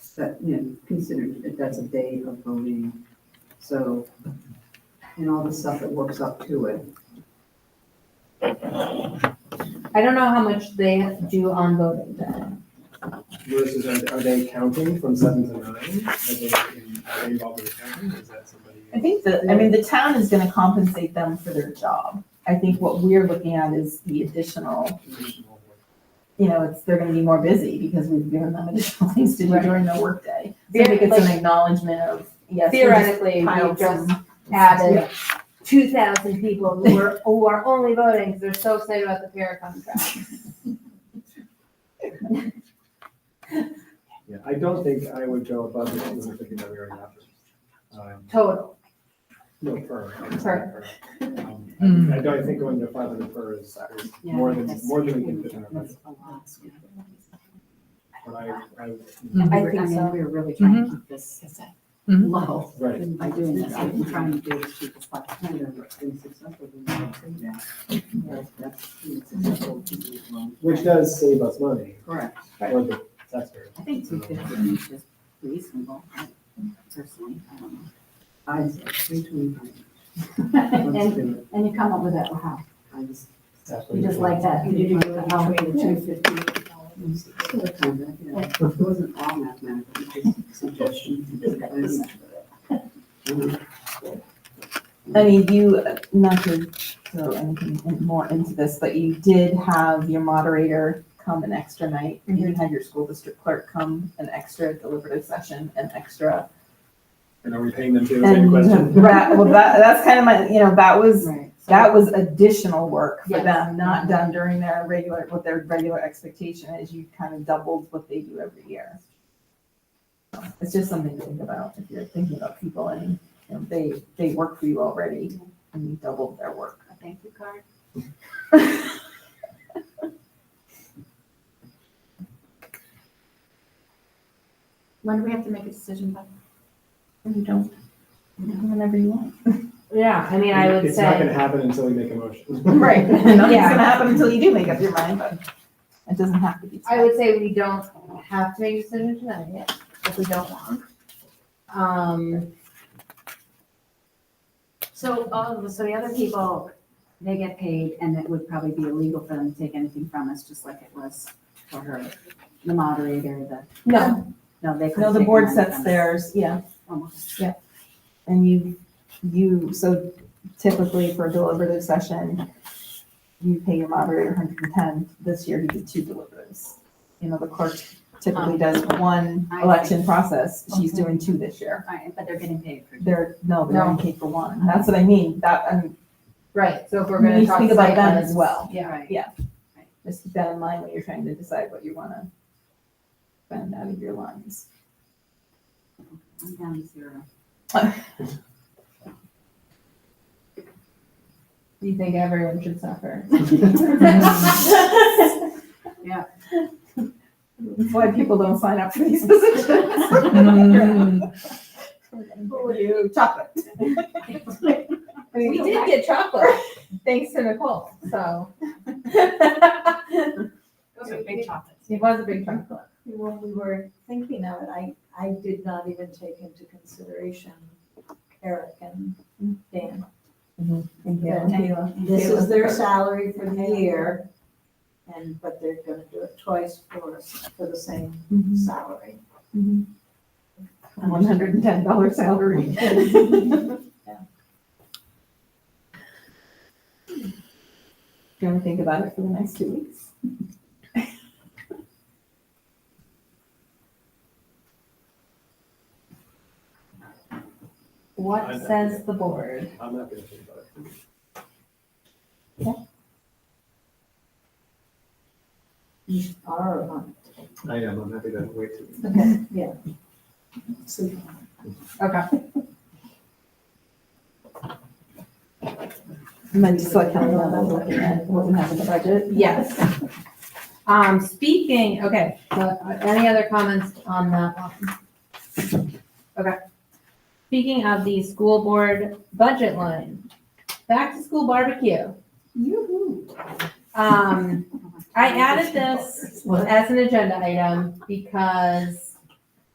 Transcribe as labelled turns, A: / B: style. A: set, you know, considered if that's a day of voting. So, and all the stuff that works up to it.
B: I don't know how much they do on voting day.
C: Versus, are, are they counting from seven to nine? Are they, in- are they involved in counting? Is that somebody?
D: I think the, I mean, the town is gonna compensate them for their job. I think what we're looking at is the additional,
C: additional work?
D: you know, it's, they're gonna be more busy because we've given them additional things to do
B: Right.
D: during their workday. So I think it's an acknowledgement of, yes, we just
B: Theoretically, we
D: piled
B: just
D: some.
B: added two thousand people who are, who are only voting because they're so excited about the fair contract.
C: Yeah, I don't think I would go above the two hundred fifty that we already have. Um,
B: Total,
C: No, per.
B: Per.
C: Um, I I don't, I think going to five hundred per is is more than, more than we can fit in our budget. But I, I,
D: Mm-hmm.
B: I think so.
E: We're really trying to keep this low
C: right,
E: by doing this. I've been trying to do it as cheap as possible.
A: Kind of been successful in that, say that. But That's been successful to do it long.
C: which does save us money
A: Correct.
C: for the taxpayer.
E: I think two fifty is just reasonable, personally. I don't know.
A: I said three twenty-five. Let's
E: And,
A: do it.
E: and you come up with that, wow,
A: I just.
E: you just like that. You do the whole way to two fifty.
A: It wasn't all mathematical, it was just suggestions.
D: I mean, you, not to throw anything in- more into this, but you did have your moderator come an extra night. and You
B: Mm-hmm.
D: had your school district clerk come an extra deliberative session, an extra.
C: And are we paying them too? Any
D: And
E: uh,
C: question?
D: that, well, that, that's kind of my, you know, that was,
E: Right.
D: that was additional work for
B: Yes.
D: them, not done during their regular, what their regular expectation is. You kind of doubled what they do every year. So It's just something to think about if you're thinking about people and, you know, they, they work for you already and you doubled their work.
E: A thank you card. When do we have to make a decision by?
D: You don't, whenever you want.
B: yeah, I mean, I would
C: It's not gonna
B: say,
C: happen until we make a motion.
D: Right, nothing's
B: Yeah.
D: gonna happen until you do make up your mind, but it doesn't have to be.
B: I would say we don't have to make a decision tonight if we don't want. Um,
E: So all of, so the other people, they get paid and it would probably be illegal for them to take anything from us, just like it was for her, the moderator, the,
B: no,
E: no, they. couldn't
D: No, the
E: take
D: board
E: money
D: sets
E: from
D: theirs, yeah,
E: us.
D: and you, you, so typically for a deliberative session, you pay your moderator hundred and ten, this year he did two deliberatives. You know, the clerk typically does one
E: Um, I see.
D: election process, she's
E: Okay.
D: doing two this year.
E: All right, but they're getting paid for.
D: They're, no, they're
B: No.
D: on cake for one, that's what I mean, that, um, I mean,
B: right, so if we're
D: We need
B: gonna
D: to
B: talk.
D: think about
B: site
D: them as
B: plans,
D: well.
B: Yeah,
E: Right.
D: just keep that in mind when you're trying to decide what you wanna spend out of your lines.
E: I'm down to zero.
B: you think everyone should suffer.
D: That's why people don't sign up for these
A: Mm-hmm. Mm.
D: positions. You chocolate.
B: We did get chocolate, thanks to Nicole, so.
E: Those are big chocolates.
B: It was a big chocolate.
F: When we were thinking of it, I, I did not even take into consideration Eric and Dan. This is their salary for the year, and, but they're gonna do it twice for, us for the same salary.
D: One hundred and ten dollar salary. Do you want to think about it for the next two weeks?
B: What says the board?
C: I'm not gonna think about it.
F: You are on it.
C: I am, I'm happy to wait till.
F: So
B: Okay.
D: And then just like how we're looking at what we have in the budget.
B: Yes. Um, speaking, okay, so uh, any other comments on that one? Okay. Speaking of the school board budget line, back to school barbecue. Um, I added this as an agenda item because